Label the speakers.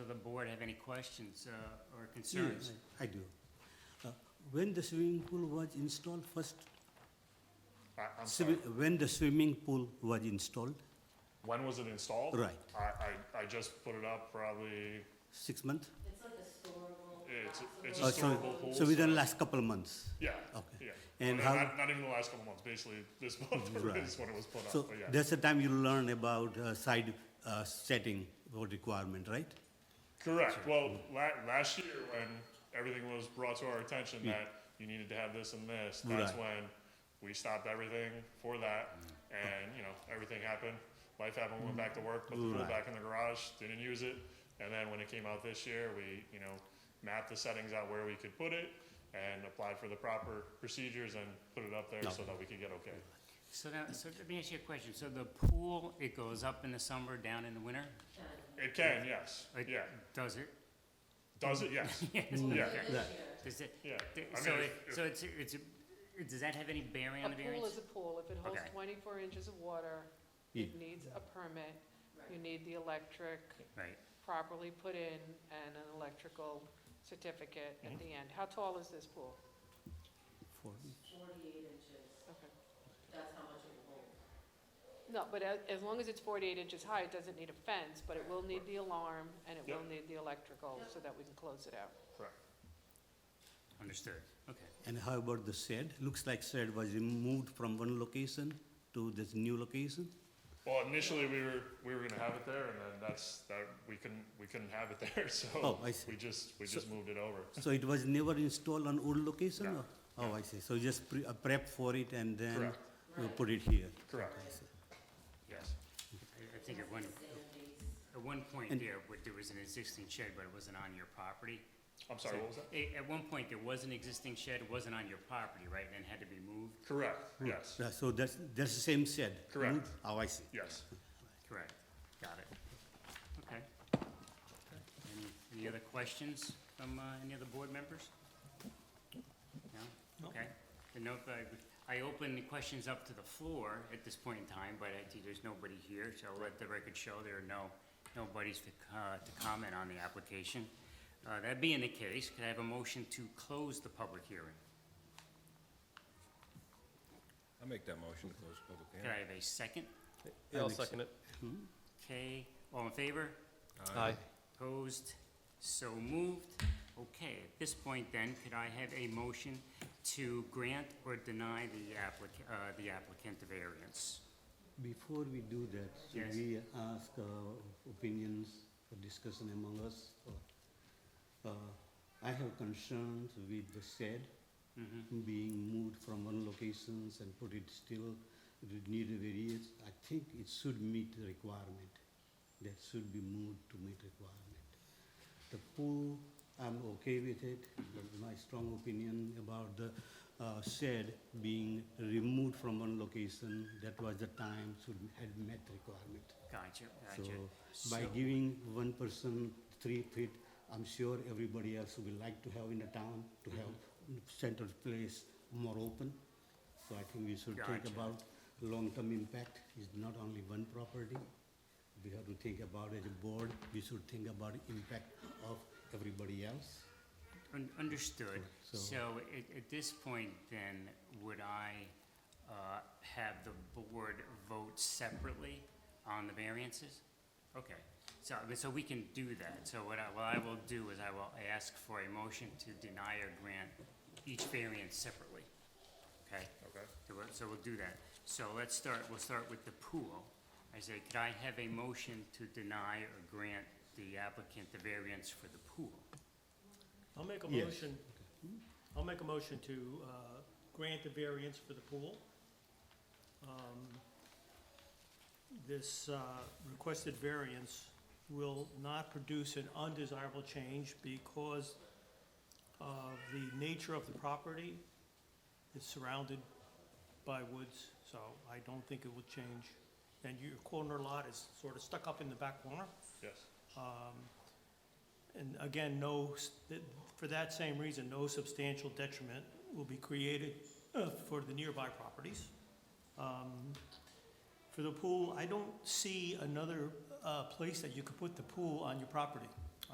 Speaker 1: board have any questions uh, or concerns?
Speaker 2: Yes, I I do. Uh, When the swimming pool was installed first?
Speaker 3: I- I'm
Speaker 2: Swi-
Speaker 3: sorry.
Speaker 2: When the swimming pool was installed,
Speaker 3: When was it installed?
Speaker 2: Right.
Speaker 3: I, I, I just put it up probably,
Speaker 2: six months?
Speaker 4: It's like a storable.
Speaker 3: It's-
Speaker 4: box of
Speaker 3: it's a
Speaker 2: Oh,
Speaker 4: those.
Speaker 2: so-
Speaker 3: storable pool, uh,
Speaker 2: So within
Speaker 3: so-
Speaker 2: last couple of months?
Speaker 3: yeah,
Speaker 2: Okay.
Speaker 3: yeah.
Speaker 2: And
Speaker 3: Well,
Speaker 2: how-
Speaker 3: Not, not even the last couple months, basically this month
Speaker 2: Right.
Speaker 3: is when it was put
Speaker 2: So
Speaker 3: up, but yeah.
Speaker 2: that's the time you learn about uh, side uh, setting for requirement, right?
Speaker 3: Correct. Well, la- last year when everything was brought to our attention that you needed to have this and this, that's
Speaker 2: Right.
Speaker 3: when we stopped everything for that. And, you know, everything happened. Life happened, we went back to work, put the pool
Speaker 2: Right.
Speaker 3: back in the garage, didn't use it. And then when it came out this year, we, you know, mapped the settings out where we could put it and applied for the proper procedures and put it up there so that we could get okay.
Speaker 1: So now, so let me ask you a question. So the pool, it goes up in the summer, down in the winter?
Speaker 3: It can, yes.
Speaker 1: It-
Speaker 3: Yeah.
Speaker 1: Does it?
Speaker 3: Does it? Yes.
Speaker 4: This
Speaker 3: Yeah.
Speaker 4: year,
Speaker 1: Does it?
Speaker 3: Yeah.
Speaker 1: th-
Speaker 3: I
Speaker 1: So,
Speaker 3: mean,
Speaker 1: it-
Speaker 3: if- if-
Speaker 1: so it's, it's, it- does that have any bearing
Speaker 5: A
Speaker 1: on the
Speaker 5: pool
Speaker 1: variance?
Speaker 5: is a pool, if it holds
Speaker 1: Okay.
Speaker 5: 24 inches of water, it needs a permit, you need the electric
Speaker 1: Right.
Speaker 5: properly put in and an electrical certificate at the end. How tall is this pool?
Speaker 2: For-
Speaker 4: Forty-eight inches,
Speaker 5: Okay.
Speaker 4: that's how much it will hold.
Speaker 5: No, but as, as long as it's 48 inches high, it doesn't need a fence, but it will need the alarm and it will
Speaker 3: Yep.
Speaker 5: need the electrical so that we can close it out.
Speaker 3: Correct.
Speaker 1: Understood. Okay.
Speaker 2: And how about the shed? Looks like shed was removed from one location to this new location?
Speaker 3: Well, initially we were we were gonna have it there, and then that's that we couldn't we couldn't have it there, so
Speaker 2: Oh, I see.
Speaker 3: we just we just moved it over.
Speaker 2: So it was never installed on old location?
Speaker 3: No.
Speaker 2: or- Oh, I see. So you just pre- uh, prep for it and then
Speaker 3: Correct.
Speaker 2: you put it here?
Speaker 3: Correct.
Speaker 2: I see.
Speaker 3: Yes.
Speaker 1: I- I think at one, at one point there, but there was an existing shed, but it wasn't on your property.
Speaker 3: I'm sorry. What was that?
Speaker 1: A- At one point, there was an existing shed, it wasn't on your property, right, and had to be moved?
Speaker 3: Correct.
Speaker 2: Hmm.
Speaker 3: Yes.
Speaker 2: Yeah, So that's, that's the same shed?
Speaker 3: Correct.
Speaker 2: Oh, I see.
Speaker 3: Yes.
Speaker 1: Correct. Got it. Okay. Any, any other questions from uh, any other board members? No? Okay. Then no, I- I open the questions up to the floor at this point in time, but I think there's nobody here, so I'll let the record show there are no, nobody's to, co- uh, to comment on the application. Uh, That being the case, could I have a motion to close the public hearing?
Speaker 6: I'll make that motion to close the public
Speaker 1: Could
Speaker 6: hearing.
Speaker 1: I have a second?
Speaker 7: Yeah, I'll second it.
Speaker 1: Okay, all in favor?
Speaker 7: Aye.
Speaker 1: Opposed? So moved. Okay, at this point then, could I have a motion to grant or deny the applicant, uh, the applicant a variance?
Speaker 2: Before we do that, should
Speaker 1: Yes.
Speaker 2: we ask uh, opinions for discussion among us? Uh, I have concerns with the shed
Speaker 1: Mm-hmm,
Speaker 2: being moved from one locations and put it still, it would need a variance. I think it should meet the requirement. That should be moved to meet requirement. The pool, I'm okay with it, but my strong opinion about the uh, shed being removed from one location, that was the time should had met requirement.
Speaker 1: Gotcha, gotcha.
Speaker 2: So by giving one person three feet, I'm sure everybody else will like to have in the town, to
Speaker 1: Mm-hmm.
Speaker 2: have central place more open. So I think we should think
Speaker 1: Gotcha.
Speaker 2: about long-term impact is not only one property. We have to think about as a board, we should think about impact of everybody else.
Speaker 1: Un- Understood.
Speaker 2: So-
Speaker 1: So at, at this point then, would I, uh, have the board vote separately on the variances? Okay, so, so we can do that. So what I, what I will do is I will ask for a motion to deny or grant each variance separately. Okay?
Speaker 3: Okay.
Speaker 1: So we'll, so we'll do that. So let's start, we'll start with the pool. I say, could I have a motion to deny or grant the applicant the variance for the pool?
Speaker 8: I'll make a
Speaker 2: Yes.
Speaker 8: motion, I'll make a motion to uh, grant the variance for the pool. Um, This uh, requested variance will not produce an undesirable change because of the nature of the property. It's surrounded by woods, so I don't think it will change. And your corner lot is sort of stuck up in the back corner.
Speaker 3: Yes.
Speaker 8: Um, And again, no, for that same reason, no substantial detriment will be created uh, for the nearby properties. Um, For the pool, I don't see another uh, place that you could put the pool on your property.